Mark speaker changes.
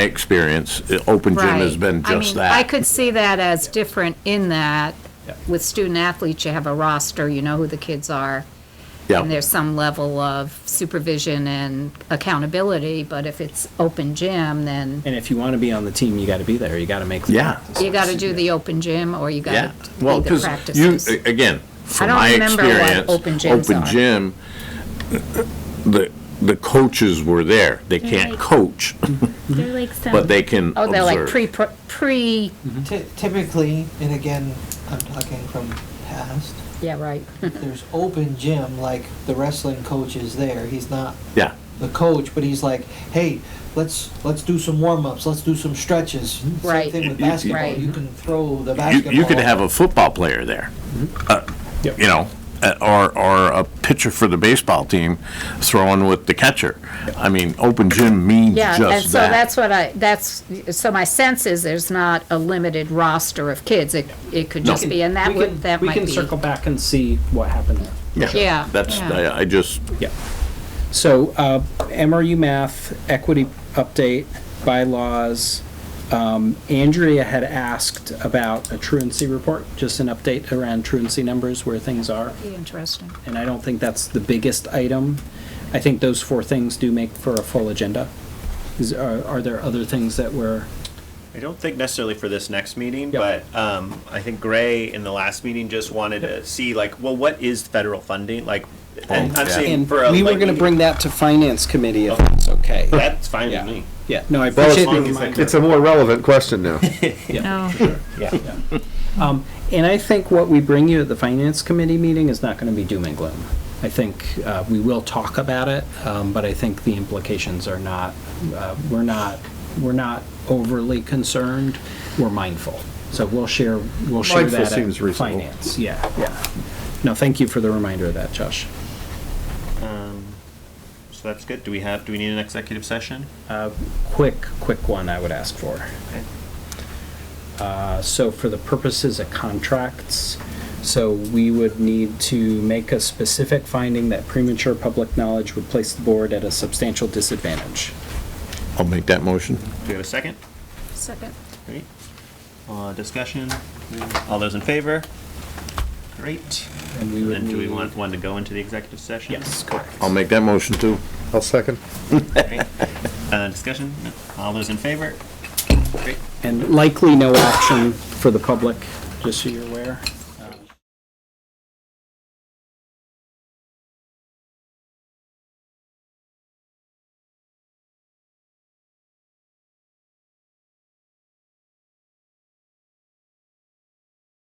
Speaker 1: experience, uh, open gym has
Speaker 2: Right.
Speaker 1: been
Speaker 2: I
Speaker 1: just
Speaker 2: mean, I
Speaker 1: that.
Speaker 2: could see that as different in that with student athletes, you have a roster, you know who the kids are.
Speaker 1: Yeah.
Speaker 2: And there's some level of supervision and accountability, but if it's open gym, then
Speaker 3: And if you want to be on the team, you got to be there. You got to make. the
Speaker 1: Yeah.
Speaker 3: practices.
Speaker 2: you gotta do the open gym or you gotta
Speaker 1: Yeah, well,
Speaker 2: do the
Speaker 1: because you,
Speaker 2: practices.
Speaker 1: a- again, from
Speaker 2: don't
Speaker 1: my
Speaker 2: remember what
Speaker 1: experience,
Speaker 2: open gyms
Speaker 1: open
Speaker 2: are.
Speaker 1: gym, the, the coaches were there. They can't
Speaker 4: like-
Speaker 1: coach,
Speaker 4: They're like some.
Speaker 1: but they can
Speaker 2: Mm-hmm. Oh, they're like
Speaker 1: uh, observe.
Speaker 2: pre, pre,
Speaker 5: Ty- Typically, and again, I'm talking from past,
Speaker 2: yeah, right.
Speaker 5: if there's open gym, like the wrestling coach is there, he's not
Speaker 1: Yeah,
Speaker 5: the coach, but he's like, hey, let's, let's do some warm-ups, let's do some stretches.
Speaker 2: Right.
Speaker 5: Same thing with
Speaker 1: You- you-
Speaker 5: basketball,
Speaker 2: Right.
Speaker 5: you can throw the
Speaker 1: you,
Speaker 5: basketball.
Speaker 1: you could have a football player there, uh,
Speaker 3: Yep.
Speaker 1: you know, uh, or, or a pitcher for the baseball team throwing with the catcher. I mean, open gym means
Speaker 2: Yeah,
Speaker 1: just that.
Speaker 2: and so that's what I, that's, so my sense is there's not a limited roster of kids. It, it could
Speaker 1: No.
Speaker 2: just be, and that
Speaker 3: We can-
Speaker 2: would, that might
Speaker 3: We can
Speaker 2: be.
Speaker 3: circle back and see what happened there.
Speaker 2: Yeah,
Speaker 1: That's,
Speaker 2: yeah.
Speaker 1: I, I just,
Speaker 3: Yeah. So uh, MRU math, equity update, bylaws. Um, Andrea had asked about a truancy report, just an update around truancy numbers, where things are.
Speaker 2: Be interesting.
Speaker 3: And I don't think that's the biggest item. I think those four things do make for a full agenda. Is, are, are there other things that were?
Speaker 6: I don't think necessarily for this next meeting,
Speaker 3: Yep.
Speaker 6: but um, I think Gray in the last meeting just wanted to see like, well, what is federal funding like? And I'm saying
Speaker 3: And
Speaker 6: for a
Speaker 3: we were
Speaker 6: like,
Speaker 3: gonna bring that to finance committee if that's okay.
Speaker 6: That's fine
Speaker 3: Yeah.
Speaker 6: with me.
Speaker 3: Yeah, no, I
Speaker 7: Well,
Speaker 3: appreciate the
Speaker 7: it's,
Speaker 3: reminder.
Speaker 7: it's a more relevant question now.
Speaker 3: Um, and I think what we bring you at the finance committee meeting is not gonna be doom and gloom. I think, uh, we will talk about it, um, but I think the implications are not, uh, we're not, we're not overly concerned, we're mindful. So we'll share, we'll share
Speaker 7: Mindful
Speaker 3: that
Speaker 7: seems
Speaker 3: at
Speaker 7: reasonable.
Speaker 3: finance, yeah, yeah. No, thank you for the reminder of that, Josh.
Speaker 6: So that's good. Do we have, do we need an executive session?
Speaker 3: quick, quick one I would ask for. Uh, So for the purposes of contracts, so we would need to make a specific finding that premature public knowledge would place the board at a substantial disadvantage.
Speaker 1: I'll make that motion.
Speaker 6: Do we have a second?
Speaker 2: Second.
Speaker 6: Great. Uh, Discussion? All those in favor? Great.
Speaker 3: And we
Speaker 6: And
Speaker 3: would
Speaker 6: then do we
Speaker 3: need,
Speaker 6: want one to go into the executive session?
Speaker 3: yes, correct.
Speaker 1: I'll make that motion too.
Speaker 7: I'll second.
Speaker 6: Great. Uh, Discussion? No. All those in favor?
Speaker 3: And likely no action for the public, just so you're aware.